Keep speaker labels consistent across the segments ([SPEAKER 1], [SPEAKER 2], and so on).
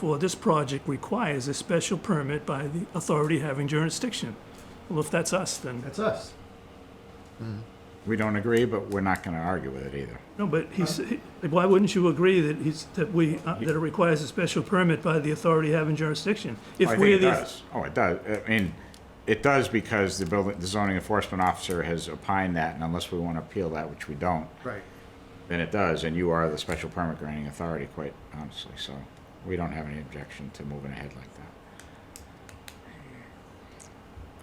[SPEAKER 1] for this project requires a special permit by the authority having jurisdiction. Well, if that's us, then,
[SPEAKER 2] That's us.
[SPEAKER 3] We don't agree, but we're not going to argue with it either.
[SPEAKER 1] no, but he's, he- why wouldn't you agree that he's, that we, uh, that it requires a special permit by the authority having jurisdiction?
[SPEAKER 3] I
[SPEAKER 1] If
[SPEAKER 3] think
[SPEAKER 1] we're
[SPEAKER 3] it
[SPEAKER 1] the
[SPEAKER 3] does. Oh, it does. I mean, it does because the building, the zoning enforcement officer has opined that, and unless we want to appeal that, which we don't,
[SPEAKER 2] Right.
[SPEAKER 3] then it does, and you are the special permit granting authority, quite honestly, so we don't have any objection to moving ahead like that.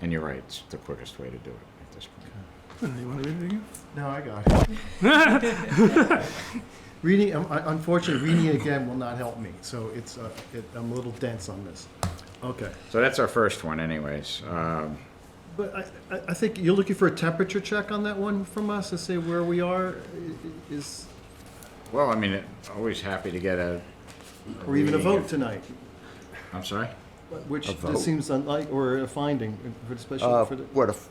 [SPEAKER 3] And you're right, it's the quickest way to do it at this point.
[SPEAKER 1] You wanna read it again?
[SPEAKER 2] No, I got it. reading, um, I- unfortunately, reading it again will not help me. So it's, uh, it, I'm a little dense on this. Okay.
[SPEAKER 3] So that's our first one anyways. Um,
[SPEAKER 2] But I, I, I think you're looking for a temperature check on that one from us to say where we are i- i- is,
[SPEAKER 3] Well, I mean, it- always happy to get a,
[SPEAKER 2] or even a
[SPEAKER 3] Reading
[SPEAKER 2] vote
[SPEAKER 3] it.
[SPEAKER 2] tonight,
[SPEAKER 3] I'm sorry?
[SPEAKER 2] which
[SPEAKER 4] A vote.
[SPEAKER 2] this seems unlike, or a finding for the
[SPEAKER 4] Uh,
[SPEAKER 2] special, for the,
[SPEAKER 4] What if,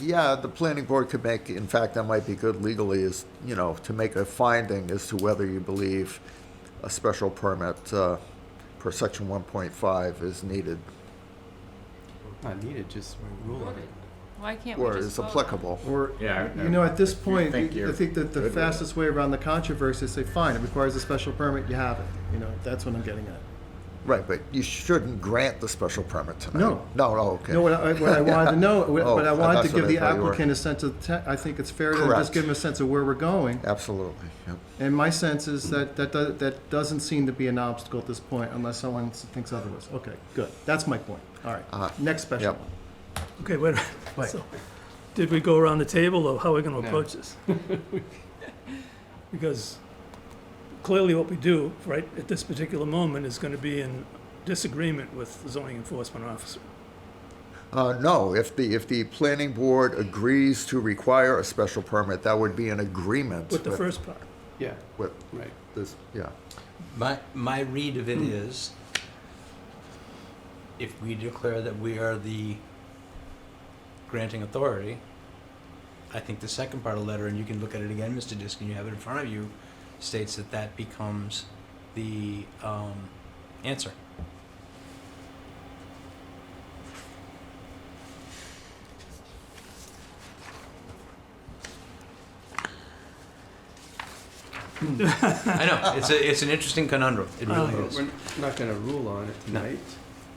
[SPEAKER 4] yeah, the planning board could make, in fact, that might be good legally, is, you know, to make a finding as to whether you believe a special permit uh, per section 1.5 is needed
[SPEAKER 5] Not needed, just rule it.
[SPEAKER 6] Why can't we
[SPEAKER 4] or
[SPEAKER 6] just
[SPEAKER 4] is
[SPEAKER 6] vote?
[SPEAKER 4] applicable.
[SPEAKER 2] or,
[SPEAKER 3] Yeah,
[SPEAKER 2] you know, at this
[SPEAKER 3] you
[SPEAKER 2] point,
[SPEAKER 3] think
[SPEAKER 2] I
[SPEAKER 3] you're
[SPEAKER 2] think that
[SPEAKER 3] good
[SPEAKER 2] the
[SPEAKER 3] with it.
[SPEAKER 2] fastest way around the controversy is say, fine, it requires a special permit, you have it. You know, that's what I'm getting at.
[SPEAKER 4] Right, but you shouldn't grant the special permit tonight.
[SPEAKER 2] No.
[SPEAKER 4] No, no, okay.
[SPEAKER 2] No, what I, what I wanted to know, what
[SPEAKER 4] Oh,
[SPEAKER 2] what I wanted
[SPEAKER 4] that's
[SPEAKER 2] to give
[SPEAKER 4] what I
[SPEAKER 2] the
[SPEAKER 4] thought you were-
[SPEAKER 2] applicant a sense of, te- I think it's fair to just
[SPEAKER 4] Correct.
[SPEAKER 2] give him a sense of where we're going.
[SPEAKER 4] Absolutely, yep.
[SPEAKER 2] And my sense is that, that, do- that doesn't seem to be an obstacle at this point unless someone s- thinks otherwise. Okay, good. That's my point. All
[SPEAKER 4] Uh-huh.
[SPEAKER 2] right, next special
[SPEAKER 4] Yep.
[SPEAKER 2] one.
[SPEAKER 1] Okay, wait,
[SPEAKER 2] Wait.
[SPEAKER 1] so, did we go around the table, or how are we gonna approach this? Because clearly what we do, right, at this particular moment is gonna be in disagreement with the zoning enforcement officer.
[SPEAKER 4] Uh, no, if the, if the planning board agrees to require a special permit, that would be an agreement.
[SPEAKER 1] With the first part.
[SPEAKER 5] Yeah,
[SPEAKER 4] With
[SPEAKER 5] right.
[SPEAKER 4] this, yeah.
[SPEAKER 7] My, my read of it is, if we declare that we are the granting authority, I think the second part of the letter, and you can look at it again, Mr. Diskin, you have it in front of you, states that that becomes the, um, answer. I know, it's a, it's an interesting conundrum, it really
[SPEAKER 1] Uh,
[SPEAKER 7] is.
[SPEAKER 5] We're not gonna rule on it
[SPEAKER 7] No.
[SPEAKER 5] tonight.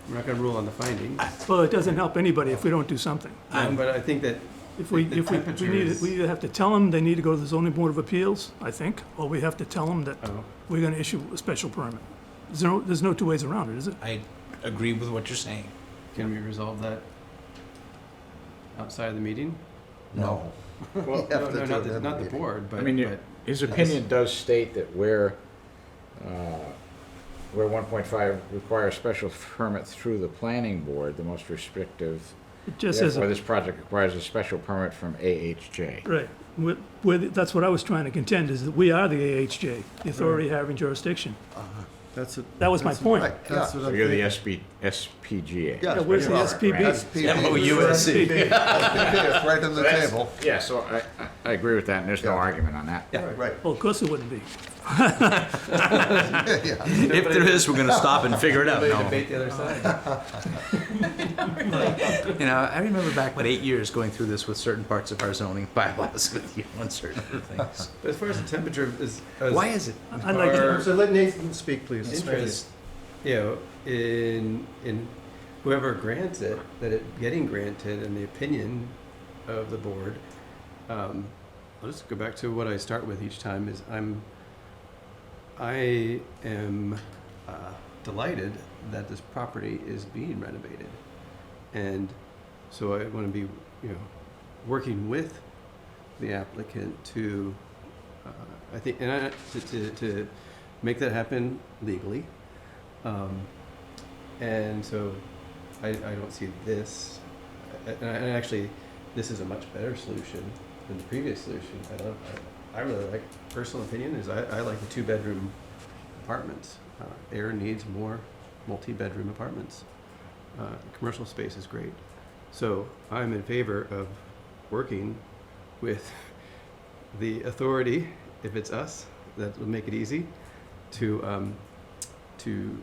[SPEAKER 5] We're not gonna rule on the findings.
[SPEAKER 1] Well, it doesn't help anybody if we don't do something.
[SPEAKER 7] I'm-
[SPEAKER 5] But I think that,
[SPEAKER 1] If we,
[SPEAKER 5] The
[SPEAKER 1] if we, we
[SPEAKER 5] temperature
[SPEAKER 1] need,
[SPEAKER 5] is-
[SPEAKER 1] we either have to tell them they need to go to the zoning board of appeals, I think, or we have to tell them that
[SPEAKER 5] oh,
[SPEAKER 1] we're gonna issue a special permit. There's no, there's no two ways around it, is it?
[SPEAKER 7] I agree with what you're saying.
[SPEAKER 5] can we resolve that outside of the meeting?
[SPEAKER 4] No.
[SPEAKER 3] Well,
[SPEAKER 4] You have
[SPEAKER 5] No,
[SPEAKER 4] to
[SPEAKER 5] no,
[SPEAKER 4] do
[SPEAKER 5] not
[SPEAKER 4] it
[SPEAKER 5] the,
[SPEAKER 4] in
[SPEAKER 5] not the
[SPEAKER 4] meeting.
[SPEAKER 5] board, but,
[SPEAKER 3] I mean, you-
[SPEAKER 5] but
[SPEAKER 3] His opinion does state that where, uh, where 1.5 requires special permit through the planning board, the most restrictive,
[SPEAKER 1] It just
[SPEAKER 3] therefore
[SPEAKER 1] isn't,
[SPEAKER 3] this project requires a special permit from AHJ.
[SPEAKER 1] right. We're- we're the- that's what I was trying to contend, is that we are the AHJ, the authority having jurisdiction.
[SPEAKER 2] That's it.
[SPEAKER 1] That was my
[SPEAKER 2] That's-
[SPEAKER 1] point.
[SPEAKER 4] Right,
[SPEAKER 2] That's
[SPEAKER 4] yeah.
[SPEAKER 2] what
[SPEAKER 3] So
[SPEAKER 2] I'm
[SPEAKER 3] you're the
[SPEAKER 2] thinking.
[SPEAKER 3] SB, SPGA.
[SPEAKER 4] Yeah,
[SPEAKER 1] Yeah, where's the
[SPEAKER 4] right.
[SPEAKER 1] SPB?
[SPEAKER 4] SPP.
[SPEAKER 7] SPP.
[SPEAKER 4] It's right on the table.
[SPEAKER 3] Yeah, so I, I- I agree with that, and there's no
[SPEAKER 4] Yeah.
[SPEAKER 3] argument on that.
[SPEAKER 4] Right.
[SPEAKER 1] Well, of course it wouldn't be.
[SPEAKER 4] Yeah.
[SPEAKER 7] If there is, we're gonna stop and figure it out,
[SPEAKER 5] they
[SPEAKER 7] no.
[SPEAKER 5] debate the other side.
[SPEAKER 7] You know, I remember back what eight years going through this with certain parts of our zoning bylaws with you on certain things.
[SPEAKER 5] But as far as the temperature is.
[SPEAKER 7] Why is it?
[SPEAKER 1] I'd like to-
[SPEAKER 5] Or-
[SPEAKER 2] So let Nathan speak, please.
[SPEAKER 5] interest, you know, in, in whoever grants it, that it getting granted and the opinion of the board. Um, I'll just go back to what I start with each time is I'm, I am uh, delighted that this property is being renovated. And so I want to be, you know, working with the applicant to, uh, I think, and I, to, to, to make that happen legally. Um, and so I, I don't see this, and, I, and actually, this is a much better solution than the previous solution. I love, I, I really like, personal opinion is I, I like the two bedroom apartments. Uh, air needs more multi bedroom apartments. Uh, commercial space is great. So I'm in favor of working with the authority, if it's us, that will make it easy to um, to